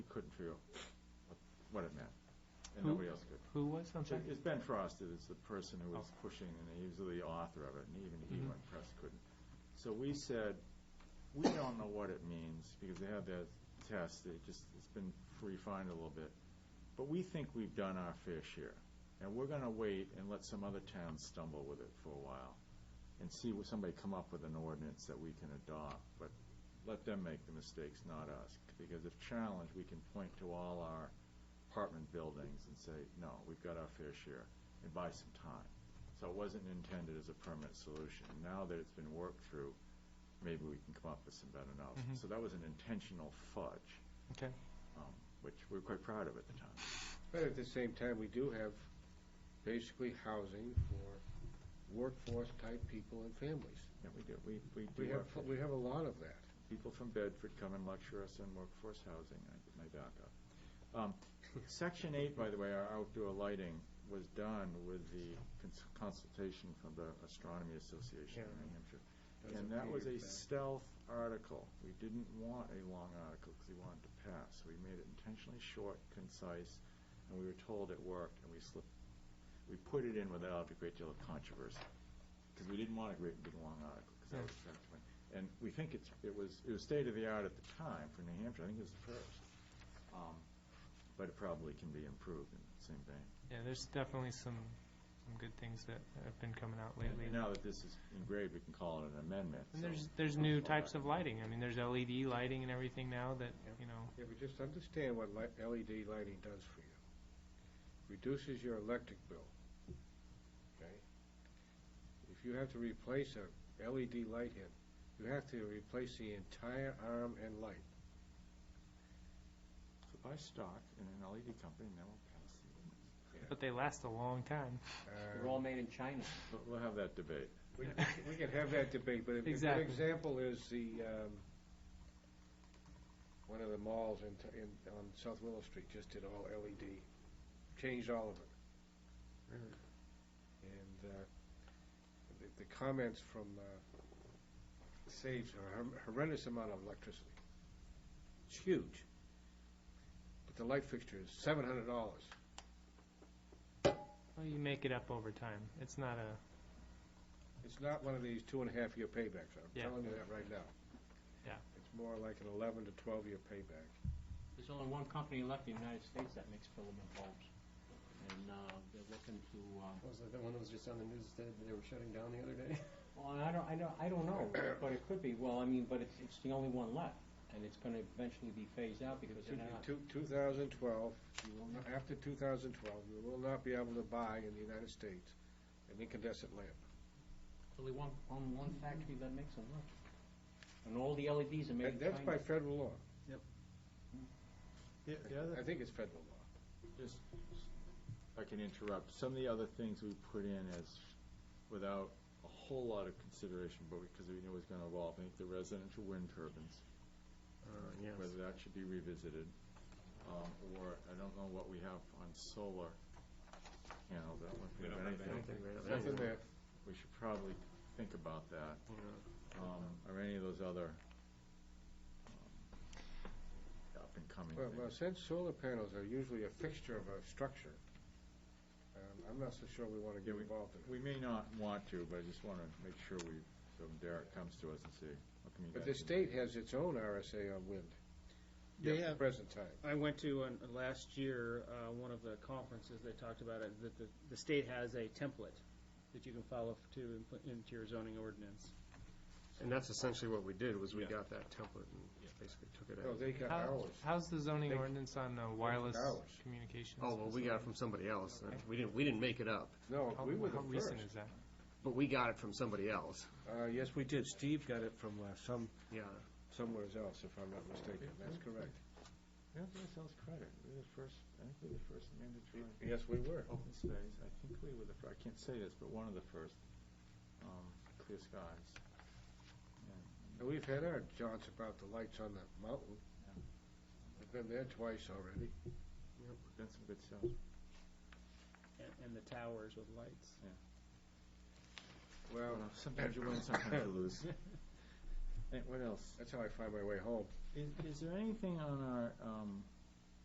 through what it meant, and Who- nobody else could. Who was, I'm sorry? It's Ben Frost, that is the person who was pushing, and he was the author of it, and even he, Mhm. when pressed, couldn't. So we said, we don't know what it means, because they had that test, it just, it's been refined a little bit. But we think we've done our fair share, and we're gonna wait and let some other towns stumble with it for a while, and see what, somebody come up with an ordinance that we can adopt, but let them make the mistakes, not us. Because if challenged, we can point to all our apartment buildings and say, no, we've got our fair share, and buy some time. So it wasn't intended as a permanent solution. Now that it's been worked through, maybe we can come up with some better knowledge. Mhm. So that was an intentional fudge, Okay. um, which we were quite proud of at the time. But at the same time, we do have basically housing for workforce-type people and families. Yeah, we do, we, we We do have, our fair we have a lot of that. people from Bedford come and lecture us on workforce housing. I get my back up. Um, Section eight, by the way, our outdoor lighting was done with the cons- consultation from the Astronomy Association in Yeah. New Hampshire. That's And that few was a years back. stealth article. We didn't want a long article because we wanted to pass. So we made it intentionally short, concise, and we were told it worked, and we slipped, we put it in without a great deal of controversy because we didn't want a great big long article, because that Yeah. was effectively. And we think it's, it was, it was state of the art at the time for New Hampshire, I think it was the first. Um, But it probably can be improved in the same vein. Yeah, there's definitely some, some good things that have been coming out lately. And now that this is engraved, we can call it an amendment. And so- there's, there's new types of lighting. I mean, there's LED lighting and everything now that, you know, Yeah, but just understand what li- LED lighting does for you. Reduces your electric bill, okay? If you have to replace a LED light head, you have to replace the entire arm and light. So buy stock in an LED company, and then we'll pass the ordinance. but they last a long time. Uh, They're all made in China. But We'll have that debate. We we can have that debate, but a a good Exactly. example is the, um, one of the malls in, t- in, on South Willow Street just did all LED, changed all of it. And, uh, the- the comments from, uh, saves a hor- horrendous amount of electricity. It's huge. But the light fixture is seven hundred dollars. Well, you make it up over time. It's not a, It's not one of these two and a half year paybacks, I'm Yeah. telling you that right now. Yeah. It's more like an eleven to twelve year payback. There's only one company left in the United States that makes filament bulbs. And uh, they're looking to, uh, Was it the one that was just on the news that they were shutting down the other day? well, I don't, I don't, I don't know, but it could be, well, I mean, but it's, it's the only one left. And it's gonna eventually be phased out because they're not, Two, two thousand twelve, you will not, after two thousand twelve, you will not be able to buy in the United States an incandescent lamp. only one, on one factory that makes them left. And all the LEDs are made in And that's by China. federal law. The the other I think it's federal law. Just, if I can interrupt, some of the other things we put in as, without a whole lot of consideration, but because we knew it was gonna evolve, I think the residential wind turbines, Uh, whether that should be revisited, um, or, I don't know what we have on solar panels, I don't know if we have anything. Nothing there. We should probably think about that, um, or any of those other, um, up and coming Well, well, things. since solar panels are usually a fixture of a structure, um, I'm not so sure we want to Yeah, get involved in it. We may not want to, but I just wanna make sure we, so when Derek comes to us and say, what can you guys But do? the state has its own RSA on wind. They At the have- present time. I went to, an- last year, uh, one of the conferences, they talked about it, that the, the state has a template that you can follow to, input into your zoning ordinance. And that's essentially what we did, was we Yeah. got that template and basically took it No, out. Oh, they got how, ours. how's the zoning They- ordinance on uh, wireless Ours. communications? Oh, well, we got it from somebody else. and We didn't, we didn't make it up, No, How, we were the how first. recent is that? but we got it from somebody else. Uh, yes, we did. Steve got it from uh, some, Yeah. somewhere else, if I'm not mistaken. That's correct. We don't give ourselves credit, we're the first, I think we're the first mandatory Yes, we were. open space, I think we were the, fir- I can't say this, but one of the first, um, clear skies. And We've had our jaunts about the lights on the mountain. We've been there twice already. Done some good stuff. And, and the towers with lights. Well, Well, Sometimes you win, sometimes you lose. And what else? that's how I find my way home. Is, is there anything on our, um,